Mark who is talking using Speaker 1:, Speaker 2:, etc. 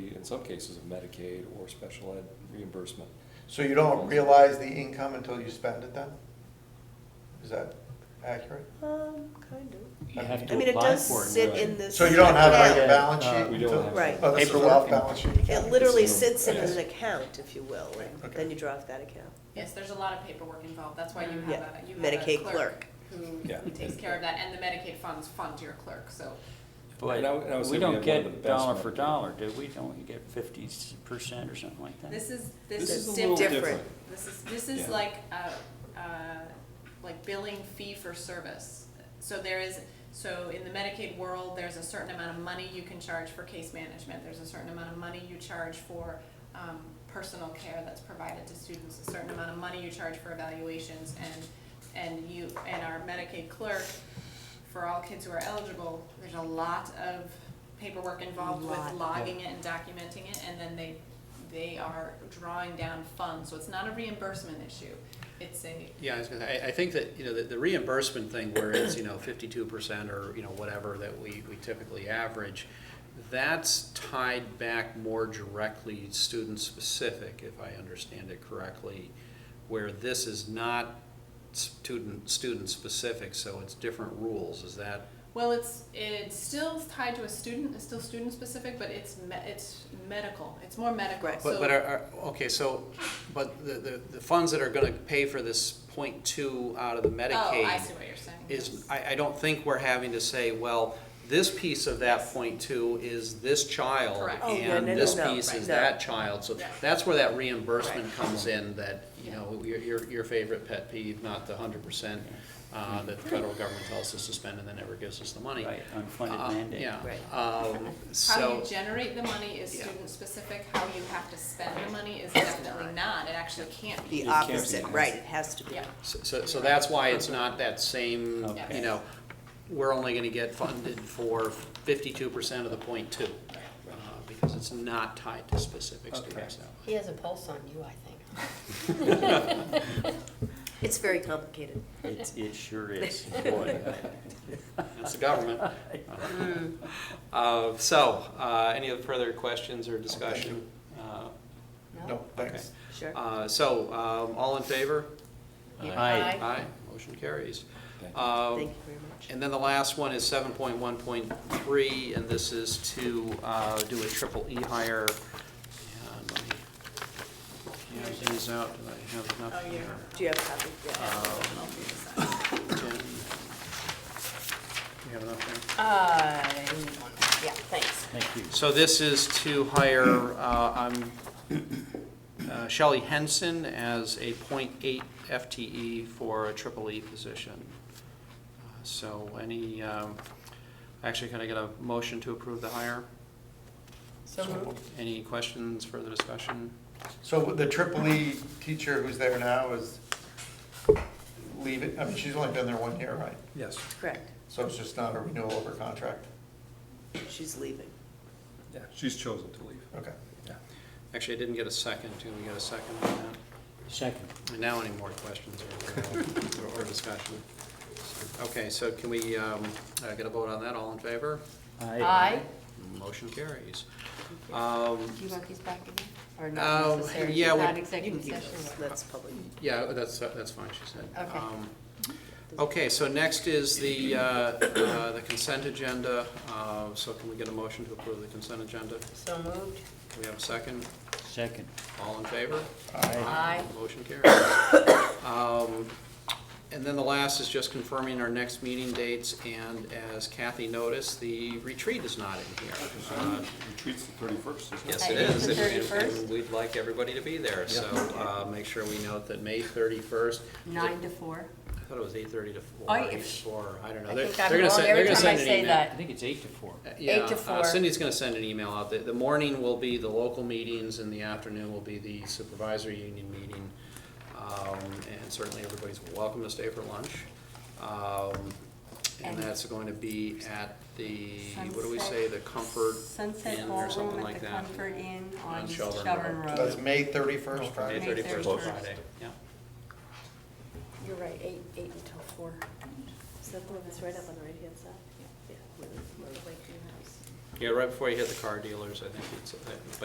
Speaker 1: in some cases, of Medicaid or special ed reimbursement.
Speaker 2: So you don't realize the income until you spend it then? Is that accurate?
Speaker 3: Um, kind of.
Speaker 4: You have
Speaker 3: I
Speaker 4: to
Speaker 3: mean, it
Speaker 4: apply
Speaker 3: does
Speaker 4: for it.
Speaker 3: sit
Speaker 1: right?
Speaker 3: in this.
Speaker 2: So you don't have like
Speaker 3: account.
Speaker 2: a balance
Speaker 4: Uh,
Speaker 2: sheet?
Speaker 1: We don't
Speaker 2: until-
Speaker 1: have.
Speaker 3: Right.
Speaker 2: Oh, this is
Speaker 4: Paperwork.
Speaker 2: off balance sheet
Speaker 3: It
Speaker 2: account?
Speaker 3: literally
Speaker 1: It's in a-
Speaker 3: sits in
Speaker 1: yes.
Speaker 3: an account, if you will, and
Speaker 2: Okay.
Speaker 3: then you draw off that account.
Speaker 5: Yes, there's a lot of paperwork involved, that's why you have
Speaker 3: Yeah,
Speaker 5: a, you have a
Speaker 3: Medicaid
Speaker 5: clerk
Speaker 3: clerk.
Speaker 1: Yeah.
Speaker 5: who takes care of that, and the Medicaid funds fund your clerk, so.
Speaker 1: And I would- and I would say
Speaker 4: But we
Speaker 1: we have
Speaker 4: don't
Speaker 1: one of the
Speaker 4: get
Speaker 1: best
Speaker 4: dollar for
Speaker 1: Medicaid.
Speaker 4: dollar, do we? Don't we get fifty percent or something like that?
Speaker 5: This is,
Speaker 1: This
Speaker 5: this
Speaker 3: This
Speaker 1: is
Speaker 5: is
Speaker 1: a little
Speaker 5: different.
Speaker 1: different.
Speaker 3: different.
Speaker 5: This is, this is
Speaker 1: Yeah.
Speaker 5: like, uh, uh, like billing fee for service. So there is, so in the Medicaid world, there's a certain amount of money you can charge for case management. There's a certain amount of money you charge for, um, personal care that's provided to students, a certain amount of money you charge for evaluations. And, and you, and our Medicaid clerk, for all kids who are eligible, there's a lot of paperwork involved with
Speaker 3: Lot.
Speaker 5: logging it and documenting it, and then they, they are drawing down funds, so it's not a reimbursement issue, it's a,
Speaker 6: Yeah, I was gonna, I, I think that, you know, the, the reimbursement thing where it's, you know, fifty-two percent or, you know, whatever that we, we typically average, that's tied back more directly student-specific, if I understand it correctly, where this is not student, student-specific, so it's different rules, is that?
Speaker 5: well, it's, it's still tied to a student, it's still student-specific, but it's me, it's medical, it's more medical,
Speaker 3: Right.
Speaker 5: so.
Speaker 6: But, but are, are, okay, so, but the, the, the funds that are gonna pay for this point two out of the Medicaid.
Speaker 5: Oh, I see what you're saying.
Speaker 6: is, I, I don't think we're having to say, well, this piece of that point two is this child,
Speaker 5: Correct.
Speaker 3: Oh, yeah,
Speaker 6: and
Speaker 3: no, no,
Speaker 6: this
Speaker 3: no,
Speaker 6: piece
Speaker 3: right,
Speaker 6: is
Speaker 3: no.
Speaker 6: that child, so
Speaker 5: Yeah.
Speaker 6: that's where that reimbursement comes in, that, you
Speaker 5: Yeah.
Speaker 6: know, your, your, your favorite pet peeve, not the hundred percent, uh, that the federal government tells us to spend and then never gives us the money.
Speaker 4: Right, unfunded
Speaker 6: Uh,
Speaker 4: mandate.
Speaker 6: Yeah,
Speaker 3: Right.
Speaker 6: um,
Speaker 5: How
Speaker 6: so,
Speaker 5: you generate the money is
Speaker 6: Yeah.
Speaker 5: student-specific, how you have to spend the money is definitely not, it actually can't be.
Speaker 3: The
Speaker 1: can't be
Speaker 3: opposite,
Speaker 1: used.
Speaker 3: right, it has to be.
Speaker 5: Yeah.
Speaker 6: so, so that's why it's not that same,
Speaker 4: Okay.
Speaker 6: you know, we're only gonna get funded for fifty-two percent of the point two. uh, because it's not tied to specific students
Speaker 1: Okay.
Speaker 6: now.
Speaker 7: He has a pulse on you, I think.
Speaker 3: It's very complicated.
Speaker 4: It, it sure is, boy.
Speaker 6: That's the government. Uh-huh. Uh, So, uh, any other further questions or discussion? Uh,
Speaker 2: No,
Speaker 6: Okay.
Speaker 2: thanks.
Speaker 3: Sure.
Speaker 6: Uh, So, um, all in favor?
Speaker 4: Aye.
Speaker 6: Aye, motion carries.
Speaker 1: Thank you.
Speaker 6: Uh,
Speaker 3: Thank you very much.
Speaker 6: And then the last one is seven point one point three, and this is to uh, do a triple E hire. And let me hand these out, do I have enough
Speaker 5: Oh,
Speaker 6: here?
Speaker 5: yeah.
Speaker 3: Do you have a copy? Yeah.
Speaker 5: I'll do this.
Speaker 6: Jen? Do you have enough there?
Speaker 7: Uh, yeah, thanks.
Speaker 4: Thank you.
Speaker 6: So this is to hire uh, um, uh, Shelley Henson as a .8 FTE for a triple E position. Uh, So any, um, actually, can I get a motion to approve the hire?
Speaker 7: So moved.
Speaker 6: Any questions, further discussion?
Speaker 2: So the triple E teacher who's there now is leaving, I mean, she's only been there one year, right?
Speaker 6: Yes.
Speaker 3: Correct,
Speaker 2: So it's just not a renewal of her contract?
Speaker 3: she's leaving.
Speaker 1: Yeah, she's chosen to leave.
Speaker 2: Okay.
Speaker 6: Actually, I didn't get a second. Can we get a second on that?
Speaker 4: Second.
Speaker 6: And Now any more questions or- or discussion? Okay, so can we um, uh, get a vote on that? All in favor?
Speaker 7: Aye.
Speaker 6: Motion carries. Um,
Speaker 7: Do you want these back again? Or
Speaker 6: Um,
Speaker 7: not necessary?
Speaker 6: yeah, we-
Speaker 7: Not
Speaker 3: Oh, You can
Speaker 7: executive
Speaker 3: keep
Speaker 7: session?
Speaker 3: those, that's public.
Speaker 6: Yeah, that's, uh, that's fine, she said.
Speaker 7: Okay.
Speaker 6: Um, Okay, so next is the, uh, uh, the consent agenda. Uh, So can we get a motion to approve the consent agenda?
Speaker 7: So moved.
Speaker 6: Do we have a second?
Speaker 4: Second.
Speaker 6: All in favor?
Speaker 7: Aye.
Speaker 6: Motion carries. Um, And then the last is just confirming our next meeting dates, and as Kathy noticed, the retreat is not in here. Uh,
Speaker 1: Retreats the thirty-first, isn't
Speaker 6: Yes, it is.
Speaker 7: That is the
Speaker 6: and- and-
Speaker 7: 31st?
Speaker 6: and We'd like everybody to be there, so uh, make sure we note that May 31st.
Speaker 7: Nine to four.
Speaker 6: I thought it was eight thirty to four,
Speaker 7: I-
Speaker 6: eight to four, I don't know.
Speaker 7: I
Speaker 6: They're-
Speaker 7: think I'm
Speaker 6: they're gonna
Speaker 7: wrong
Speaker 6: send-
Speaker 7: every
Speaker 6: they're gonna
Speaker 7: time I
Speaker 6: send an
Speaker 7: say
Speaker 6: email.
Speaker 4: I
Speaker 7: that.
Speaker 4: think it's eight to four.
Speaker 6: Yeah,
Speaker 7: to
Speaker 6: uh,
Speaker 7: four.
Speaker 6: Cindy's gonna send an email out. The, the morning will be the local meetings and the afternoon will be the supervisory union meeting. Um, and certainly everybody's welcome to stay for lunch. Um, and
Speaker 7: And-
Speaker 6: that's going to be at the, what do we say,
Speaker 7: Sunset-
Speaker 6: the Comfort
Speaker 7: Sunset
Speaker 6: Inn or something
Speaker 7: Ballroom
Speaker 6: like
Speaker 7: at the
Speaker 6: that.
Speaker 7: Comfort Inn on
Speaker 6: On Shelburne
Speaker 7: Shelburne
Speaker 6: Road.
Speaker 2: That's
Speaker 3: Uh,
Speaker 7: Road.
Speaker 2: May thirty-first,
Speaker 6: May
Speaker 2: Friday?
Speaker 6: thirty-first,
Speaker 7: 31st.
Speaker 6: Friday, yeah.
Speaker 7: You're right, eight, eight until four.
Speaker 3: Is that the one that's right up on the right-hand side? Yeah. where the- where the Lakeview House.
Speaker 6: Yeah, right before you hit the car dealers, I think it's,